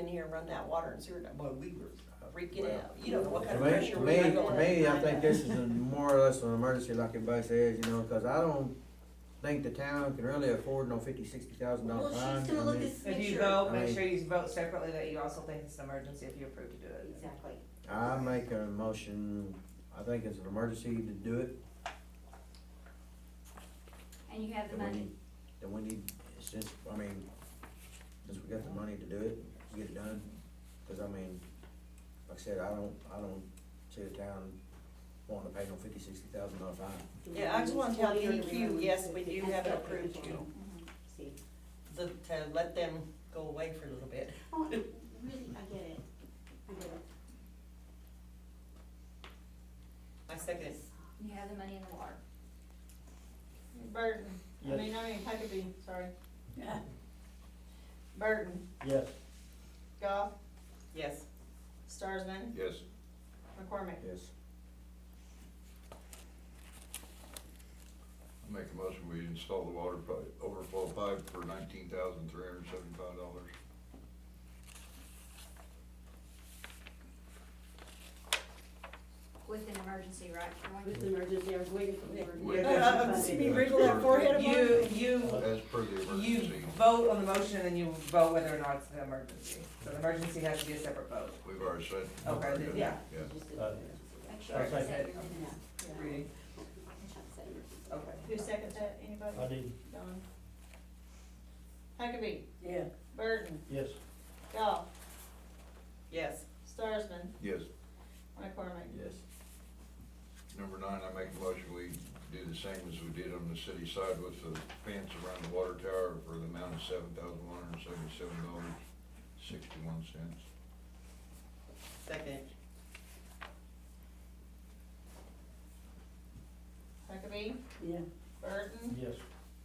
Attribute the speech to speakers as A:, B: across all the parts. A: in here and run that water and sewer, down. boy, we were uh, freaking
B: Well,
A: out. You don't know what
B: To
A: kind of
B: me,
A: pressure
B: to
A: we
B: me,
A: were
B: to
A: going.
B: me, I think this is a more or less an emergency, like everybody says, you know, cause I don't think the town can really afford no fifty, sixty thousand dollar
C: Well,
B: fine.
C: she's
B: I
C: gonna look
B: mean,
C: at,
D: If
C: make
D: you
C: sure,
D: vote, make
B: Right.
D: sure you vote separately that you also think it's an emergency if you approve to do it.
C: exactly,
B: I make a motion, I think it's an emergency to do it,
E: And you have the
B: that we
E: money.
B: need, that we need, since, I mean, since we got the money to do it, get it done. Cause I mean, like I said, I don't, I don't see the town wanting to pay no fifty, sixty thousand dollar fine.
A: Yeah, I just wanna tell
C: Well,
A: you,
C: we
A: you,
C: need
A: yes,
C: to-
A: we do
C: that's
A: have it
C: what we're
A: approved
C: doing.
A: to,
E: Mhm.
C: See,
A: the- to let them go away for a little bit.
C: oh, it really, I get it, I get it.
A: I second it.
E: You have the money in the water.
F: Burton, I mean, I mean, Huckabee, sorry. Burton,
G: Yes.
F: Goff,
A: Yes,
F: Starsman,
B: Yes.
F: McCormick.
B: Yes.
H: Make a motion, we install the water pipe, overflow pipe for nineteen thousand three hundred seventy-five dollars.
E: With an emergency, right, Troy?
C: With the emergency, I was waiting for the emergency.
H: Yeah,
A: uh, uh, see me wriggle that forehead of
D: You,
A: mine.
D: you,
H: As per the
D: you
H: emergency,
D: vote on the motion and then you vote whether or not it's an emergency. So the emergency has to be a separate vote.
H: we've already said.
D: Okay, then, yeah.
H: Yeah.
C: Just did the
G: Uh,
C: emergency.
E: Make sure it's
D: Sorry.
E: set
D: Okay.
E: your minutes.
C: Yeah, yeah.
D: Reading,
C: I said emergency.
D: okay.
F: Who seconded that, anybody?
G: I did,
F: Don. Huckabee,
C: Yeah.
F: Burton,
G: yes.
F: Goff,
A: yes.
F: Starsman,
H: Yes,
F: McCormick.
B: Yes.
H: number nine, I make a motion, we do the same as we did on the city side with the fence around the water tower for the amount of seven thousand one hundred seventy-seven dollars, sixty-one cents.
A: Second,
F: Huckabee,
C: Yeah.
F: Burton,
G: Yes.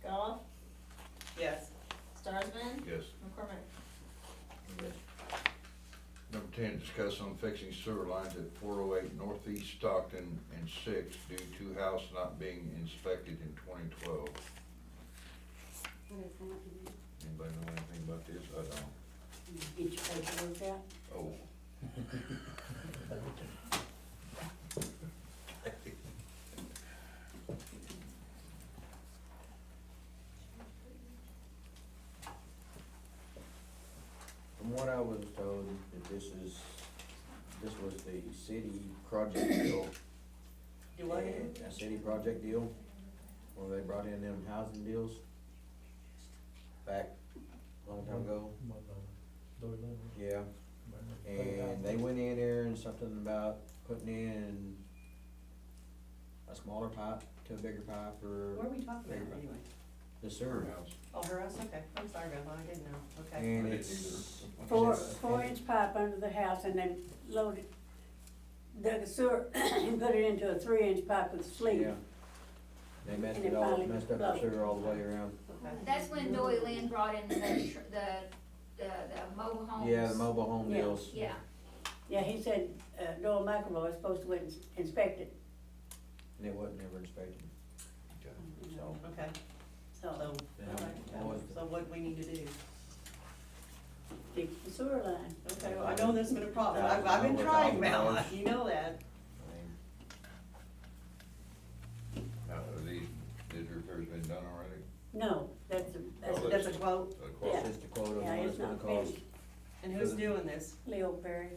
F: Goff,
A: yes.
F: Starsman,
H: Yes.
F: McCormick.
H: Number ten, discuss on fixing sewer lines at four oh eight northeast Stockton and six due to house not being inspected in twenty twelve.
C: What is that?
H: Anybody know anything about this? I don't.
C: Get your paperwork out.
H: Oh.
B: From what I was told, that this is, this was the city project deal.
A: Do I?
B: A city project deal, where they brought in them housing deals back a long time ago. Yeah, and they went in there and something about putting in a smaller pipe to a bigger pipe
A: What
B: for
A: are we talking about anyway?
B: the sewer.
H: House.
A: Oh, her house, okay. I'm sorry about that, I didn't know, okay.
B: And
H: I didn't
B: it's.
H: either.
I: four,
B: and it's-
I: four inch pipe under the house and they loaded, dug a sewer and put it into a three inch pipe with sleeve.
B: Yeah. They messed
I: And it
B: it all,
I: finally
B: messed up the
I: exploded.
B: sewer all the way around.
E: That's when Doyle Lynn brought in the, tr- the, the, the mobile homes.
B: Yeah, the mobile home
I: Yeah.
B: deals.
E: Yeah,
I: Yeah, he said, uh, Doyle McElroy is supposed to went and inspect it,
B: And it wasn't ever inspected, so.
A: Okay,
I: so
A: so,
B: Yeah.
A: all right. so what we need to do?
I: fix the sewer line.
A: Okay, well, I know there's been a problem, I've, I've been trying, Mel, you know that.
B: I mean,
H: Now, are these, these repairs been done already?
I: No, that's a, that's,
H: Oh,
I: that's a
H: that's-
I: quote,
H: Uh, quote?
B: It's just a quote on
I: yeah,
B: what it's
I: it's
B: gonna
I: not
B: cost.
I: finished,
A: And who's doing this?
I: Leo Perry,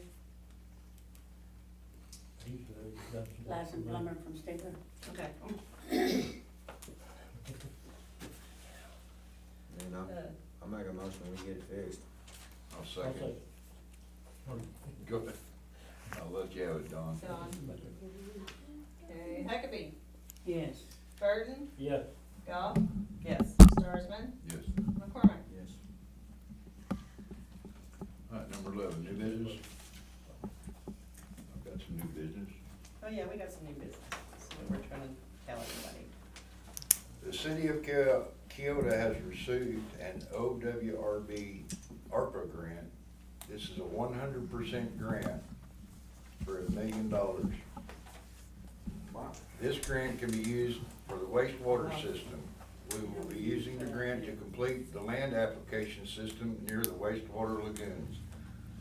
I: licensed plumber from Stigler.
A: Okay.
B: And
A: Uh,
B: I'm, I'm making a motion, we get it fixed.
H: I'll second. Go ahead. I'll let you have it, Don.
F: Don. Okay, Huckabee,
I: Yes.
F: Burton,
G: Yeah.
F: Goff,
A: Yes,
F: Starsman,
H: Yes.
F: McCormick.
B: Yes.
H: All right, number eleven, new business. I've got some new business.
A: oh yeah, we got some new business, so we're trying to tell everybody.
H: The city of Ki- Kyoto has received an OWRB ARPA grant. This is a one hundred percent grant for a million dollars. This grant can be used for the wastewater system. We will be using the grant to complete the land application system near the wastewater lagoons.